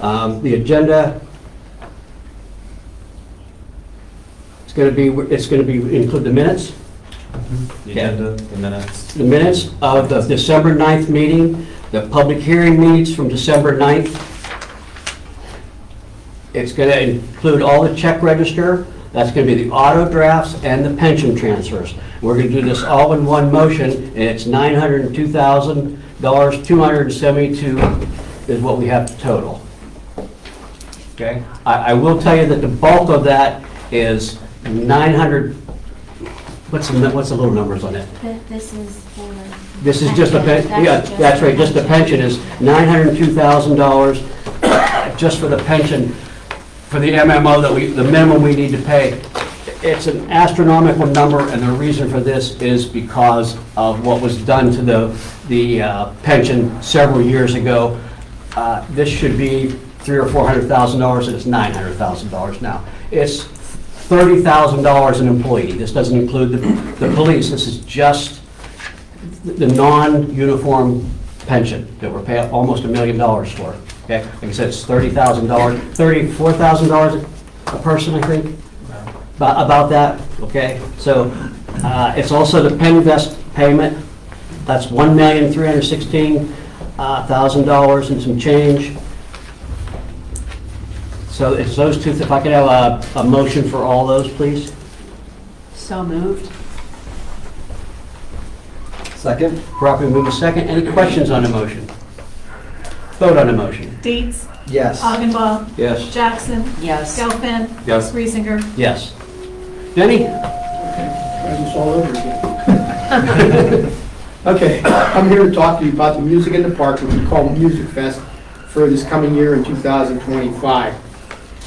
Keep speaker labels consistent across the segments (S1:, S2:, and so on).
S1: Um, The agenda, it's going to be, it's going to be, include the minutes,
S2: The agenda, the minutes.
S1: the minutes of the December 9th meeting, the public hearing minutes from December 9th. It's going to include all the check register, that's going to be the auto drafts and the pension transfers. We're going to do this all in one motion, and it's $902,000, 272 is what we have total.
S2: Okay.
S1: I, I will tell you that the bulk of that is 900, what's the, nu- what's the little numbers on it?
S3: Th- This is for...
S1: This is just a, pen- yeah, that's right, just the pension is $902,000 just for the pension, for the MMO that we, the minimum we need to pay. It's an astronomical number, and the reason for this is because of what was done to the, the uh, pension several years ago. Uh, This should be three or $400,000, and it's $900,000 now. It's $30,000 an employee. This doesn't include the, the police, this is just the non-uniform pension that we're paying almost a million dollars for, okay? Like I said, it's thirty thousand dollars, thirty-four thousand dollars a person, I think, about, about that, okay? So, uh, it's also the Penn Vest payment, that's one million, three hundred sixteen thousand dollars and some change. So it's those two, if I could have a, a motion for all those, please?
S4: So moved.
S1: Second. Properly move a second. Any questions on the motion? Vote on the motion.
S5: Dietz.
S6: Yes.
S5: Augenbaum.
S1: Yes.
S5: Jackson.
S4: Yes.
S5: Gelfen.
S2: Yes.
S5: Reesinger.
S1: Yes. Denny?
S6: It's all over again. Okay, I'm here to talk to you about the Music in the Park, which we call Music Fest, for this coming year in 2025.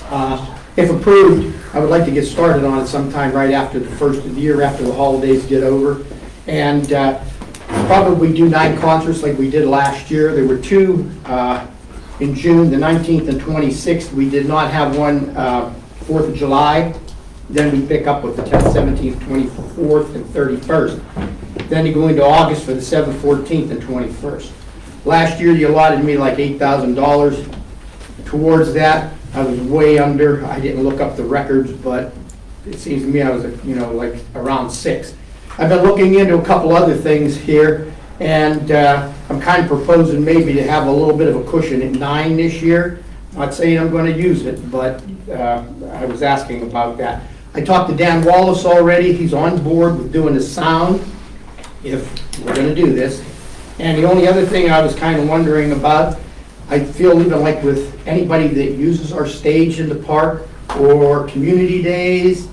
S6: Uh, If approved, I would like to get started on it sometime right after the first of the year, after the holidays get over. And uh, probably do nine concerts like we did last year. There were two uh, in June, the 19th and 26th. We did not have one uh, 4th of July. Then we pick up with the 10th, 17th, 24th, and 31st. Then you go into August for the 7th, 14th, and 21st. Last year, you allotted me like $8,000 towards that. I was way under, I didn't look up the records, but it seems to me I was, you know, like around six. I've been looking into a couple other things here, and uh, I'm kind of proposing maybe to have a little bit of a cushion at nine this year. Not saying I'm going to use it, but uh, I was asking about that. I talked to Dan Wallace already, he's on board with doing the sound if we're gonna do this. And the only other thing I was kind of wondering about, I feel even like with anybody that uses our stage in the park, or community days,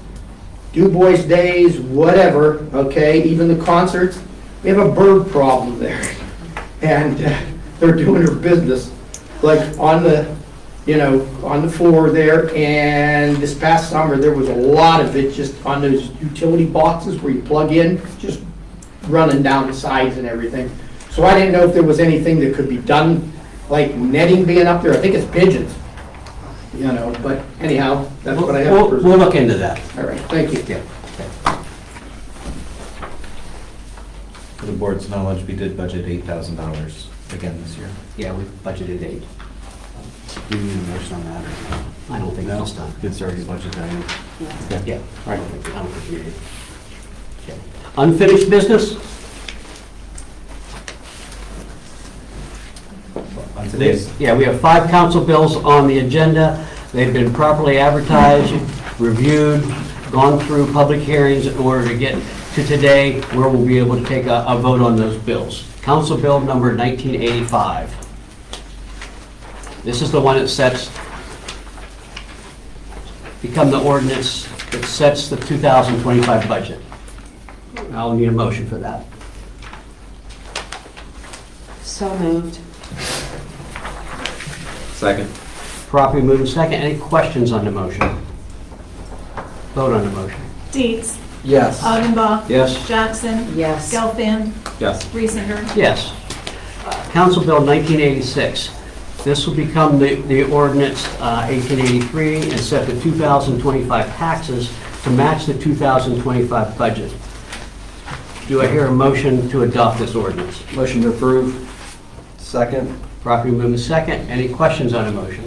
S6: Du Bois Days, whatever, okay, even the concerts, we have a bird problem there. And uh, they're doing their business, like on the, you know, on the floor there. And this past summer, there was a lot of it just on those utility boxes where you plug in, just running down the sides and everything. So I didn't know if there was anything that could be done, like netting being up there. I think it's pigeons, you know, but anyhow, that's what I have.
S1: We'll,
S6: for-
S1: we'll look into that.
S6: All right, thank you.
S2: For the board's knowledge, we did budget eight thousand dollars again this year.
S1: Yeah, we budgeted eight. Do you need a motion on that? I don't think this time.
S2: It's already budgeted. I know.
S1: Yeah, I don't think, I don't think we need it. Okay. Unfinished business?
S2: On today's,
S1: Yeah, we have five council bills on the agenda. They've been properly advertised, reviewed, gone through public hearings in order to get to today where we'll be able to take a, a vote on those bills. Council Bill number 1985. This is the one that sets, become the ordinance that sets the 2025 budget. I'll need a motion for that.
S4: So moved.
S2: second.
S1: Properly moved and second. Any questions on the motion? Vote on the motion.
S5: Dietz.
S6: Yes.
S5: Augenbaum.
S1: Yes.
S5: Jackson.
S4: Yes.
S5: Gelfen.
S2: Yes.
S5: Reesinger.
S1: Yes. Uh, Council Bill 1986. This will become the the ordinance uh, 1883 and set the 2025 taxes to match the 2025 budget. Do I hear a motion to adopt this ordinance?
S7: Motion to approve. Second.
S1: Properly moved and second. Any questions on the motion?